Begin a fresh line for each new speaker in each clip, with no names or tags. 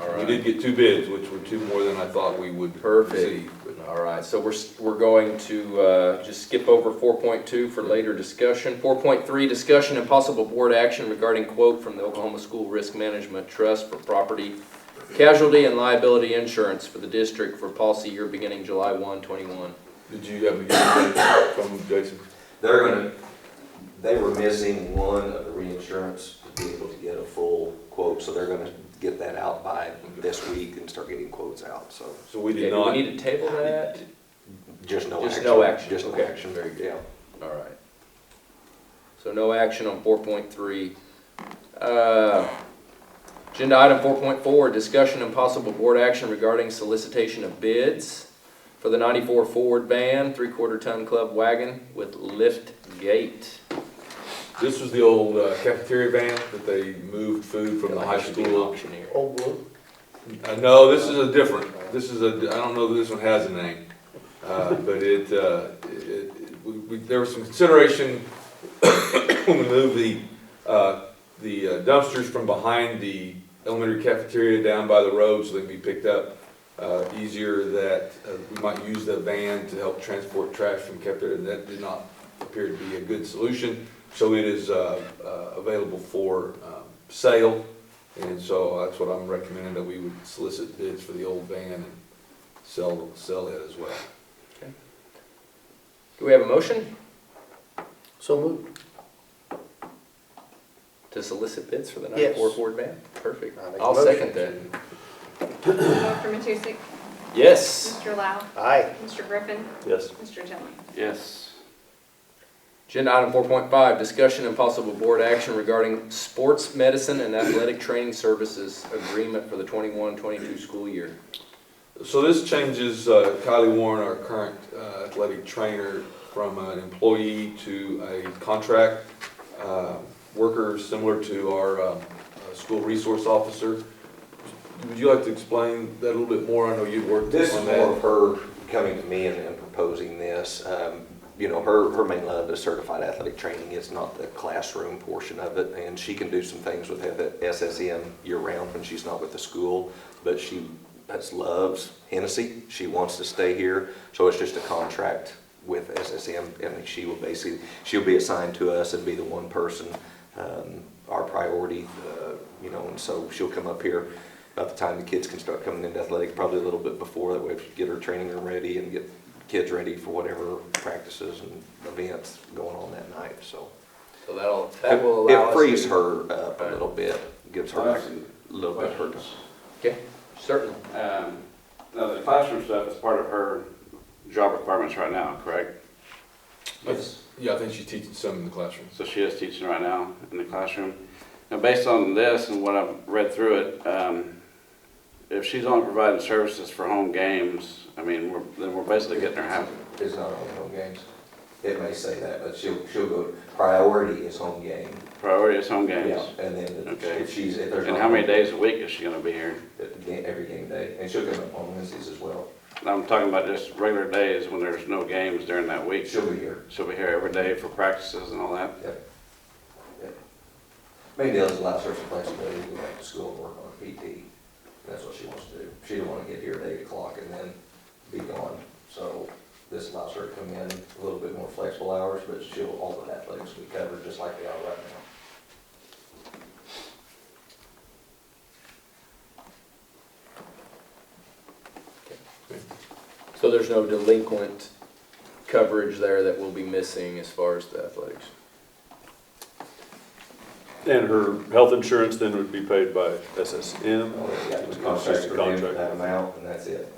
all
We did
right.
get two bids, which were two more than I thought we would
Perfect.
receive.
All right, so we're, s- we're going to uh, just skip over 4.2 for later discussion. 4.3, discussion and possible board action regarding quote from the Oklahoma School Risk Management Trust for property casualty and liability insurance for the district for policy year beginning July 1, 21.
Did you have a good bid from Jason?
They're gonna, they were missing one of the reinsurance to be able to get a full quote, so they're gonna get that out by this week and start getting quotes out, so
So we
Okay,
did
do we
not,
need to table that?
just no action.
Just no action,
Just
okay,
no action,
very good.
yeah.
All right. So no action on four point three. Uh, Agenda item four point four, discussion and possible board action regarding solicitation of bids for the ninety-four Ford van, three-quarter ton club wagon with lift gate.
this was the old uh, cafeteria van that they moved food from the high school.
Auctioneer.
Old blue.
Uh, no, this is a different, this is a, I don't know that this one has a name, uh, but it, uh, it, it- we, we- there was some consideration when we moved the, uh, the uh, dumpsters from behind the elementary cafeteria down by the road so they can be picked up, uh, easier that, uh, we might use the van to help transport trash from cafeteria, and that did not appear to be a good solution. So it is, uh, uh, available for, um, sale, and so that's what I'm recommending, that we would solicit bids for the old van and sell, sell it as well.
Do we have a motion
So moved.
to solicit bids for the
Yes.
ninety-four Ford van? Perfect.
I make a
I'll second that.
motion.
Dr. Matusek,
Yes.
Mr. Lau,
Aye.
Mr. Griffin,
Yes.
Mr. Tillman.
Yes. Agenda item four point five, discussion and possible board action regarding sports medicine and athletic training services agreement for the 21-22 school year.
So this changes uh, Kylie Warren, our current uh, athletic trainer, from an employee to a contract uh, worker, similar to our um, uh, school resource officer. Would you like to explain that a little bit more? I know you'd worked on that.
This is more of her coming to me and, and proposing this. Um, you know, her, her main love is certified athletic training. It's not the classroom portion of it. And she can do some things with the SSM year round when she's not with the school. But she has, loves Hennessy. She wants to stay here. So it's just a contract with SSM and she will basically, she'll be assigned to us and be the one person, um, our priority, uh, you know, and so she'll come up here by the time the kids can start coming into athletic, probably a little bit before, that way if you get her training room ready and get kids ready for whatever practices and events going on that night, so.
So that'll, that will allow us.
It frees
to-
her up a little bit, gives her back a little bit of her time.
Okay, certainly.
Um, Now, the classroom stuff is part of her job requirements right now, correct?
Yes. Yeah, I think she's teaching some in the classrooms.
So she is teaching right now in the classroom. Now, based on this and what I've read through it, um, if she's only providing services for home games, I mean, we're- then we're basically getting her half.
It's not on home games. It may say that, but she'll, she'll go, priority is home game.
Priority is home games.
Yeah, And then
Okay.
if she's, if there's.
And
not-
how many days a week is she gonna be here?
At ga- Every game day, and she'll come up on Wednesdays as well.
I'm talking about just regular days when there's no games during that week.
She'll be here.
She'll be here every day for practices and all that.
Yep. Yep. Main deal is allows her some flexibility to go back to school and work on her PT. That's what she wants to do. She didn't want to get here at eight o'clock and then be gone. So this allows her to come in a little bit more flexible hours, but she'll, all the athletics we cover just like they are right now.
So there's no delinquent coverage there that we'll be missing as far as the athletics.
And her health insurance then would be paid by SSM?
All they've got is
It's
contracts
just
for them
a
for
Mm-hmm. contract.
that amount and that's it.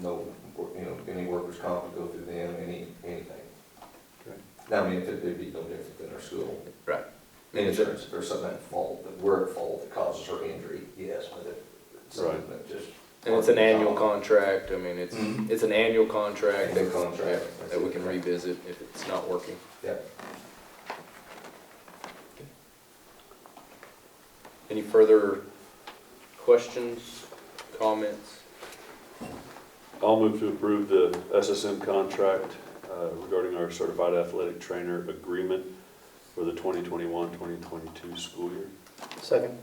No, wor- you know, any workers' comp would go through them, any, anything.
Okay.
Now, I mean, it'd it'd be no different than our school.
Right.
insurance, if there's something at fault, that we're at fault that causes her injury, yes, but if it's something that
Right.
just.
And it's an annual contract, I mean, it's, it's an annual contract.
Mm-hmm. Annual contract.
Yeah, That we can revisit if it's not working.
Yep.
Any further questions, comments?
I'll move to approve the SSM contract uh, regarding our certified athletic trainer agreement for the 2021-2022 school year.
Second.